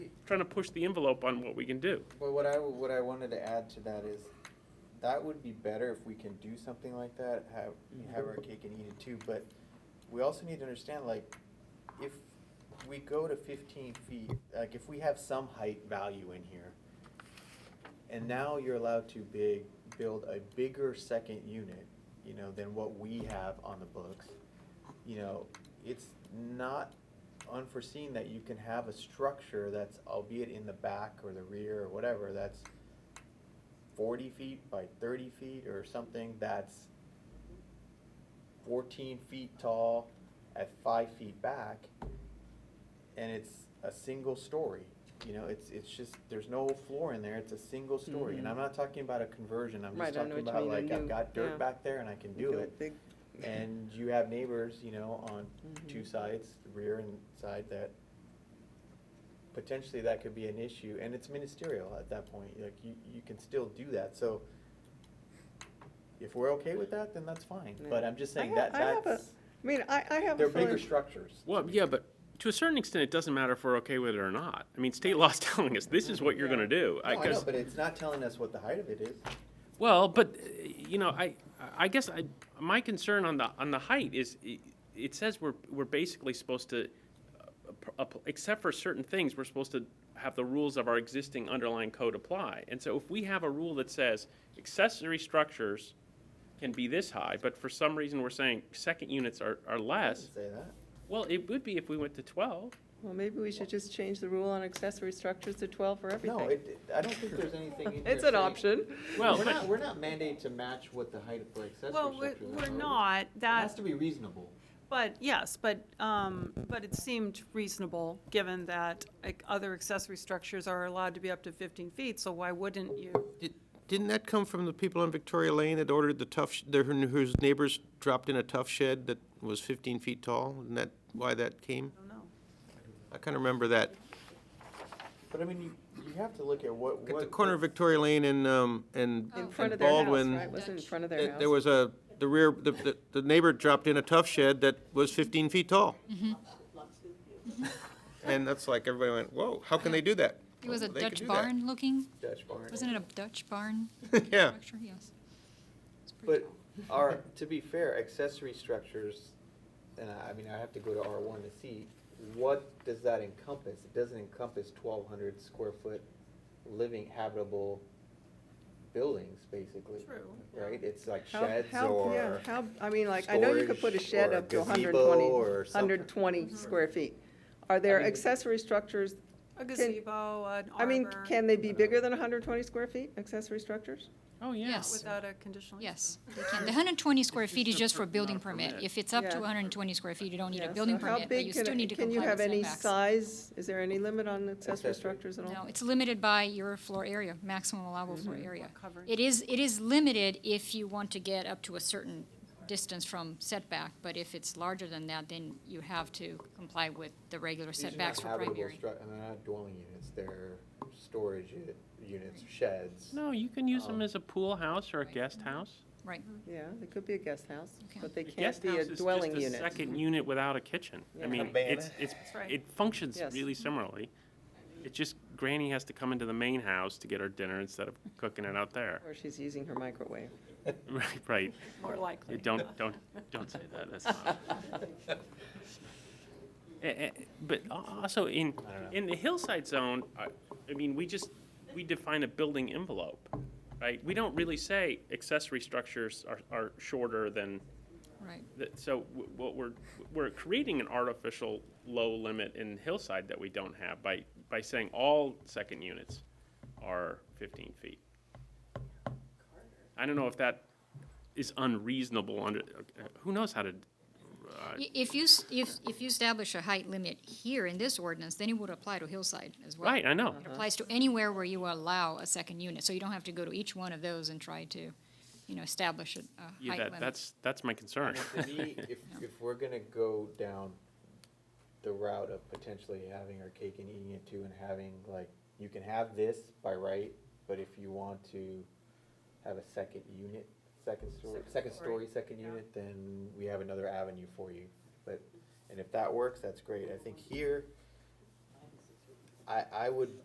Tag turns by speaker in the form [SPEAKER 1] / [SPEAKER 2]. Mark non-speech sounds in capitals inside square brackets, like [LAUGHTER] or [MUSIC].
[SPEAKER 1] trying to push the envelope on what we can do.
[SPEAKER 2] Well, what I, what I wanted to add to that is, that would be better if we can do something like that, have, have our cake and eat it too, but we also need to understand, like, if we go to fifteen feet, like, if we have some height value in here, and now you're allowed to big, build a bigger second unit, you know, than what we have on the books, you know, it's not unforeseen that you can have a structure that's albeit in the back or the rear or whatever, that's forty feet by thirty feet or something that's fourteen feet tall at five feet back, and it's a single story. You know, it's, it's just, there's no floor in there, it's a single story, and I'm not talking about a conversion, I'm
[SPEAKER 3] Mm-hmm. Right, I
[SPEAKER 2] just
[SPEAKER 3] know
[SPEAKER 2] talking
[SPEAKER 3] what you
[SPEAKER 2] about
[SPEAKER 3] mean, a
[SPEAKER 2] like, I've
[SPEAKER 3] new-
[SPEAKER 2] got
[SPEAKER 3] yeah.
[SPEAKER 2] dirt back there and I can do it
[SPEAKER 3] Big
[SPEAKER 2] and you have neighbors, you know, on
[SPEAKER 3] Mm-hmm.
[SPEAKER 2] two sides, the rear and side, that potentially that could be an issue, and it's ministerial at that point, like, you, you can still do that, so if we're okay with that, then that's fine, but
[SPEAKER 3] Yeah.
[SPEAKER 2] I'm just saying
[SPEAKER 3] I have-
[SPEAKER 2] that,
[SPEAKER 3] I have a-
[SPEAKER 2] that's,
[SPEAKER 3] I mean, I, I have. a
[SPEAKER 2] they're bigger
[SPEAKER 3] feeling-
[SPEAKER 2] structures.
[SPEAKER 1] Well, yeah, but to a certain extent, it doesn't matter if we're okay with it or not. I mean, state law's [LAUGHS] telling us this is what you're gonna do.
[SPEAKER 2] No, I know,
[SPEAKER 1] guess-
[SPEAKER 2] but it's not telling us what the height of it is.
[SPEAKER 1] Well, but, uh, you know, I, I guess I, my concern on the, on the height is, i- it says we're, we're basically supposed to, uh, ap- ap- except for certain things, we're supposed to have the rules of our existing underlying code apply. And so if we have a rule that says accessory structures can be this high, but for some reason we're saying second units are, are
[SPEAKER 2] I
[SPEAKER 1] less,
[SPEAKER 2] didn't Say that.
[SPEAKER 1] well, it would be if we went to twelve.
[SPEAKER 3] Well, maybe we should just change the rule on accessory structures to twelve for everything.
[SPEAKER 2] No, it, I don't think there's anything
[SPEAKER 3] [LAUGHS]
[SPEAKER 2] in here
[SPEAKER 3] It's an
[SPEAKER 2] saying-
[SPEAKER 3] option.
[SPEAKER 1] Well,
[SPEAKER 2] We're
[SPEAKER 1] but-
[SPEAKER 2] not, we're not mandated to match what the height of the accessory
[SPEAKER 4] Well,
[SPEAKER 2] structure
[SPEAKER 4] we're,
[SPEAKER 2] is.
[SPEAKER 4] we're
[SPEAKER 2] are we?
[SPEAKER 4] not,
[SPEAKER 2] It has
[SPEAKER 4] that,
[SPEAKER 2] to be reasonable.
[SPEAKER 4] but, yes, but, um, but it seemed reasonable, given that like, other accessory structures are allowed to be up to fifteen feet, so why wouldn't you?
[SPEAKER 5] Did- Didn't that come from the people on Victoria Lane that ordered the tough, sh- their- whose neighbors dropped in a tough shed that was 15 feet tall? Isn't that why that came?
[SPEAKER 4] I don't know.
[SPEAKER 5] I kind of remember that.
[SPEAKER 2] But I mean, you, you have to look at what,
[SPEAKER 5] At
[SPEAKER 2] what.
[SPEAKER 5] the corner of Victoria Lane and, um,
[SPEAKER 6] Oh,
[SPEAKER 5] and
[SPEAKER 3] In front
[SPEAKER 5] and
[SPEAKER 3] of their house,
[SPEAKER 5] Baldwin,
[SPEAKER 3] right? Wasn't in front of their
[SPEAKER 5] that
[SPEAKER 3] house.
[SPEAKER 5] there was a, the rear, the- the the neighbor dropped in a tough shed that was 15 feet tall.
[SPEAKER 6] Mm-hmm.
[SPEAKER 5] And that's like, everybody went, whoa, how can they do that?
[SPEAKER 6] It was a
[SPEAKER 5] Oh, They could
[SPEAKER 6] Dutch
[SPEAKER 5] do that.
[SPEAKER 6] barn looking,
[SPEAKER 2] Dutch barn.
[SPEAKER 6] wasn't it a Dutch barn
[SPEAKER 5] [LAUGHS] Yeah.
[SPEAKER 6] structure? Yes. It's pretty
[SPEAKER 2] But
[SPEAKER 6] tall.
[SPEAKER 2] our, to be fair, accessory structures, and I, I mean, I have to go to R one to see, what does that encompass? It doesn't encompass twelve hundred square foot living habitable buildings, basically.
[SPEAKER 4] True, yeah.
[SPEAKER 2] Right? It's like
[SPEAKER 3] How-
[SPEAKER 2] sheds
[SPEAKER 3] how- yeah,
[SPEAKER 2] or,
[SPEAKER 3] How, I mean, like, I know you could put a
[SPEAKER 2] storage
[SPEAKER 3] shed
[SPEAKER 2] or a
[SPEAKER 3] up to
[SPEAKER 2] gazebo
[SPEAKER 3] 120
[SPEAKER 2] or something.
[SPEAKER 3] 120 square feet. Are there
[SPEAKER 2] mean-
[SPEAKER 3] accessory structures,
[SPEAKER 4] A gazebo, an
[SPEAKER 3] I mean,
[SPEAKER 4] arbor,
[SPEAKER 3] can they be bigger than hundred and twenty square feet, accessory structures?
[SPEAKER 1] Oh, yeah.
[SPEAKER 6] Yes,
[SPEAKER 4] without a conditional use
[SPEAKER 6] yes, they can. The hundred
[SPEAKER 1] [LAUGHS]
[SPEAKER 6] and twenty square
[SPEAKER 1] It's
[SPEAKER 6] feet is
[SPEAKER 1] just a
[SPEAKER 6] just for
[SPEAKER 1] per- not
[SPEAKER 6] building
[SPEAKER 1] a
[SPEAKER 6] permit.
[SPEAKER 1] permit.
[SPEAKER 6] If it's up
[SPEAKER 3] Yeah.
[SPEAKER 6] to hundred and twenty square feet, you don't need
[SPEAKER 3] Yeah,
[SPEAKER 6] a
[SPEAKER 3] so
[SPEAKER 6] building
[SPEAKER 3] how
[SPEAKER 6] permit, but
[SPEAKER 3] big
[SPEAKER 6] you
[SPEAKER 3] can
[SPEAKER 6] still
[SPEAKER 3] it-
[SPEAKER 6] need to comply
[SPEAKER 3] Can you have
[SPEAKER 6] with
[SPEAKER 3] any
[SPEAKER 6] setbacks.
[SPEAKER 3] size, is there any limit on accessory
[SPEAKER 2] Accessory.
[SPEAKER 3] structures at all? Mm-hmm.
[SPEAKER 6] No, it's limited by your floor area, maximum allowable floor area.
[SPEAKER 4] coverage.
[SPEAKER 6] It is, it is limited if you want to get up to a certain distance from setback, but if it's larger than that, then you have to comply with the regular
[SPEAKER 2] these are
[SPEAKER 6] setbacks
[SPEAKER 2] not
[SPEAKER 6] for
[SPEAKER 2] habitable
[SPEAKER 6] primary.
[SPEAKER 2] stru, and they're not dwelling units, they're storage u- units, sheds.
[SPEAKER 1] No, you can use them
[SPEAKER 2] Um,
[SPEAKER 1] as a pool house or a guest house.
[SPEAKER 6] Right.
[SPEAKER 3] Yeah, it could be a guest house,
[SPEAKER 6] Okay.
[SPEAKER 3] but they
[SPEAKER 1] The
[SPEAKER 3] can't
[SPEAKER 1] guest
[SPEAKER 3] be
[SPEAKER 1] house
[SPEAKER 3] a
[SPEAKER 1] is just
[SPEAKER 3] dwelling unit.
[SPEAKER 1] Second unit without a kitchen.
[SPEAKER 3] Yeah.
[SPEAKER 1] I mean,
[SPEAKER 2] Cabana.
[SPEAKER 1] it's, it's,
[SPEAKER 4] right.
[SPEAKER 1] it functions
[SPEAKER 3] Yes.
[SPEAKER 1] really similarly. It's just Granny has to come into the main house to get her dinner instead of cooking it out there. [LAUGHS]
[SPEAKER 3] Or she's using her microwave.
[SPEAKER 1] Right, right.
[SPEAKER 4] more likely.
[SPEAKER 1] Don't, don't, don't say that, that's not.
[SPEAKER 2] [LAUGHS]
[SPEAKER 1] Eh, eh, But al- also in,
[SPEAKER 2] I don't know.
[SPEAKER 1] in the hillside zone, I, I mean, we just, we define a building envelope, right? We don't really say accessory structures are, are shorter than
[SPEAKER 6] Right.
[SPEAKER 1] that, so w- what we're, we're creating an artificial low limit in hillside that we don't have by, by saying all second units are fifteen feet. I don't know if that is unreasonable under, uh, who knows how to, uh,
[SPEAKER 6] I- If you, s- if, if you establish a height limit here in this ordinance, then it would apply to hillside as well.
[SPEAKER 1] right, I know.
[SPEAKER 6] It applies to anywhere where you allow a second unit, so you don't have to go to each one of those and try to, you know, establish a, a
[SPEAKER 1] Yeah,
[SPEAKER 6] height
[SPEAKER 1] that,
[SPEAKER 6] limit.
[SPEAKER 1] that's, that's my concern.
[SPEAKER 2] And
[SPEAKER 1] [LAUGHS]
[SPEAKER 2] to me, if, if we're gonna go down the route of potentially having our cake and eating it too and having like, you can have this by right, but if you want to have a second unit, second story, second story, second unit, then we have another avenue for you. But, and if that works, that's great. I think here, I, I would